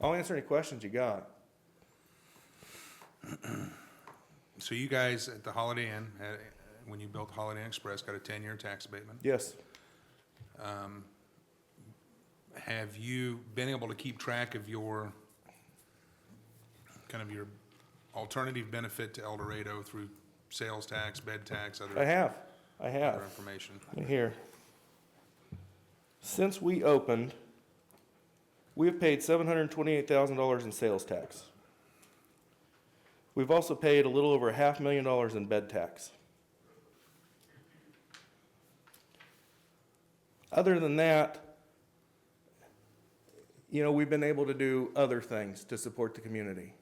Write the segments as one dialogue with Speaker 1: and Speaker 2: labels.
Speaker 1: I'll answer any questions you got.
Speaker 2: So you guys at the Holiday Inn, had- when you built Holiday Inn Express, got a ten-year tax abatement. um,
Speaker 1: Yes,
Speaker 2: Have you been able to keep track of your, kind of your alternative benefit to El Dorado through sales tax, bed tax,
Speaker 1: I
Speaker 2: other
Speaker 1: have, I
Speaker 2: other
Speaker 1: have.
Speaker 2: information?
Speaker 1: Right Here. Since we opened, we have paid seven hundred and twenty-eight thousand dollars in sales tax. We've also paid a little over a half million dollars in bed tax. Other than that, you know, we've been able to do other things to support the community.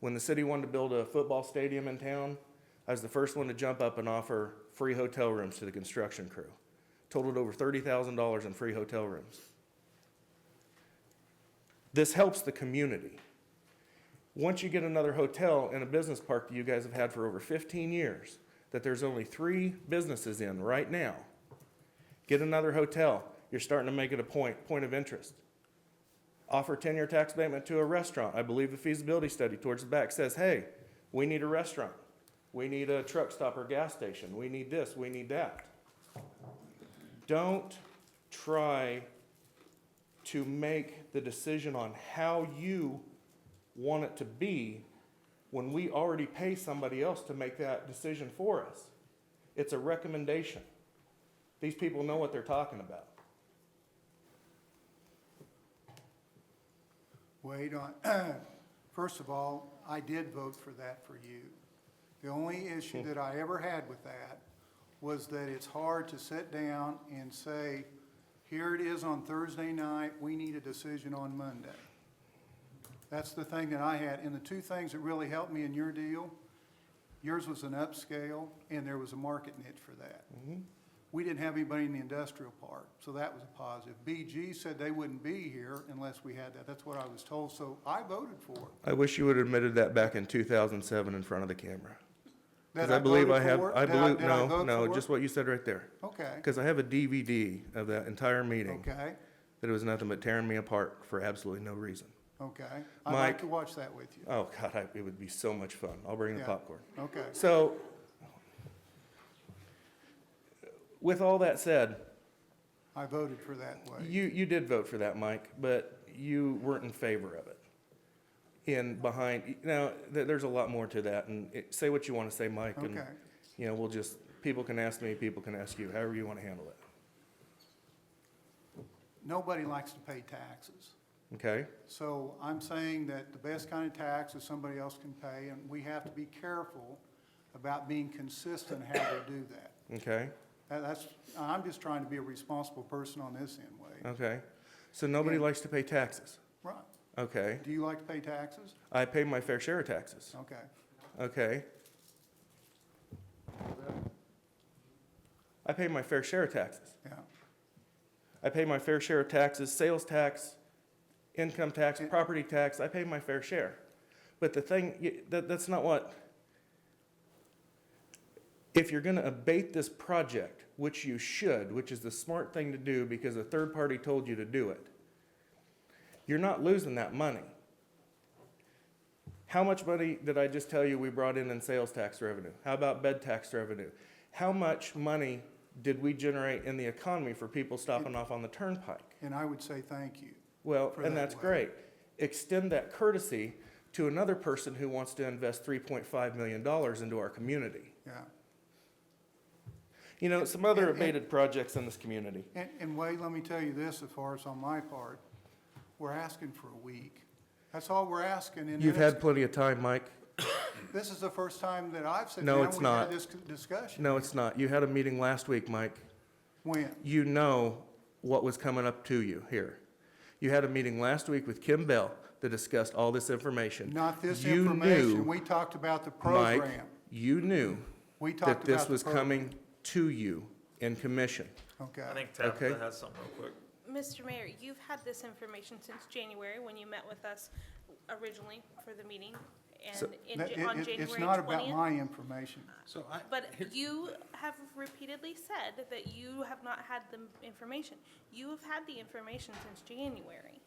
Speaker 1: When the city wanted to build a football stadium in town, I was the first one to jump up and offer free hotel rooms to the construction crew. Totaled over thirty thousand dollars in free hotel rooms. This helps the community. Once you get another hotel in a business park that you guys have had for over fifteen years, that there's only three businesses in right now, get another hotel, you're starting to make it a point, point of interest offer ten-year tax abatement to a restaurant. I believe the feasibility study towards the back says, hey, we need a restaurant. We need a truck stop or gas station. We need this, we need that. Don't try to make the decision on how you want it to be when we already pay somebody else to make that decision for us. It's a recommendation. These people know what they're talking about.
Speaker 3: Wait on, first of all, I did vote for that for you. The only issue that I ever had with that was that it's hard to sit down and say, here it is on Thursday night, we need a decision on Monday. That's the thing that I had, and the two things that really helped me in your deal, yours was an upscale, and there was a market niche for that. We didn't have anybody in the industrial park, so that was a positive. BG said they wouldn't be here unless we had that, that's what I was told, so I voted for it.
Speaker 1: I wish you would have admitted that back in 2007 in front of the camera. Because
Speaker 3: Did
Speaker 1: I believe I
Speaker 3: voted
Speaker 1: have,
Speaker 3: for it?
Speaker 1: I
Speaker 3: Did
Speaker 1: believe,
Speaker 3: did I
Speaker 1: no,
Speaker 3: vote
Speaker 1: no,
Speaker 3: for it?
Speaker 1: just what you said right there.
Speaker 3: Okay,
Speaker 1: Because I have a DVD of that entire meeting
Speaker 3: okay,
Speaker 1: that it was nothing but tearing me apart for absolutely no reason.
Speaker 3: okay. I'd like
Speaker 1: Mike.
Speaker 3: to watch that with you.
Speaker 1: Oh, God, I- it would be so much fun. I'll bring the
Speaker 3: Yeah.
Speaker 1: popcorn.
Speaker 3: Okay,
Speaker 1: So, with all that said,
Speaker 3: I voted for that way.
Speaker 1: you, you did vote for that, Mike, but you weren't in favor of it. In behind, now, there, there's a lot more to that, and it- say what you want to say, Mike, and,
Speaker 3: Okay.
Speaker 1: you know, we'll just, people can ask me, people can ask you, however you want to handle it,
Speaker 3: Nobody likes to pay taxes.
Speaker 1: okay?
Speaker 3: So I'm saying that the best kind of tax is somebody else can pay, and we have to be careful about being consistent how we do that.
Speaker 1: Okay,
Speaker 3: That- That's, I'm just trying to be a responsible person on this end way.
Speaker 1: okay. So nobody
Speaker 3: Yeah.
Speaker 1: likes to pay taxes.
Speaker 3: Right.
Speaker 1: Okay.
Speaker 3: Do you like to pay taxes?
Speaker 1: I pay my fair share of taxes.
Speaker 3: Okay.
Speaker 1: Okay. I pay my fair share of taxes.
Speaker 3: Yeah.
Speaker 1: I pay my fair share of taxes, sales tax, income tax, property tax, I pay my fair share. But the thing, y- that, that's not what, if you're gonna abate this project, which you should, which is the smart thing to do because a third party told you to do it, you're not losing that money. How much money did I just tell you we brought in in sales tax revenue? How about bed tax revenue? How much money did we generate in the economy for people stopping off on the turnpike?
Speaker 3: And I would say thank you.
Speaker 1: Well,
Speaker 3: for
Speaker 1: and
Speaker 3: that
Speaker 1: that's
Speaker 3: way.
Speaker 1: great. Extend that courtesy to another person who wants to invest three point five million dollars into our community.
Speaker 3: Yeah.
Speaker 1: You know, some other
Speaker 3: And- and-
Speaker 1: abated projects in this community.
Speaker 3: And, and Wade, let me tell you this, as far as on my part, we're asking for a week. That's all we're asking, and
Speaker 1: You've had
Speaker 3: it's,
Speaker 1: plenty of time, Mike.
Speaker 3: this is the first time that I've said,
Speaker 1: No,
Speaker 3: down,
Speaker 1: it's
Speaker 3: we had
Speaker 1: not.
Speaker 3: this c- discussion.
Speaker 1: No, it's not. You had a meeting last week, Mike.
Speaker 3: When?
Speaker 1: You know what was coming up to you here. You had a meeting last week with Kim Bell that discussed all this information.
Speaker 3: Not this
Speaker 1: You
Speaker 3: information,
Speaker 1: knew,
Speaker 3: we talked about the
Speaker 1: Mike,
Speaker 3: program.
Speaker 1: You knew
Speaker 3: We talked
Speaker 1: that
Speaker 3: about
Speaker 1: this
Speaker 3: the
Speaker 1: was
Speaker 3: program.
Speaker 1: coming to you in commission.
Speaker 3: Okay.
Speaker 4: I think
Speaker 1: Okay.
Speaker 4: Tabitha has something real quick.
Speaker 5: Mr. Mayor, you've had this information since January, when you met with us originally for the meeting,
Speaker 1: So-
Speaker 5: and in
Speaker 3: That-
Speaker 5: Ja-
Speaker 3: it-
Speaker 5: on
Speaker 3: it- It's
Speaker 5: January
Speaker 3: not about
Speaker 5: twentieth.
Speaker 3: my information.
Speaker 2: So I,
Speaker 5: But you have repeatedly said that you have not had the information. You have had the information since January.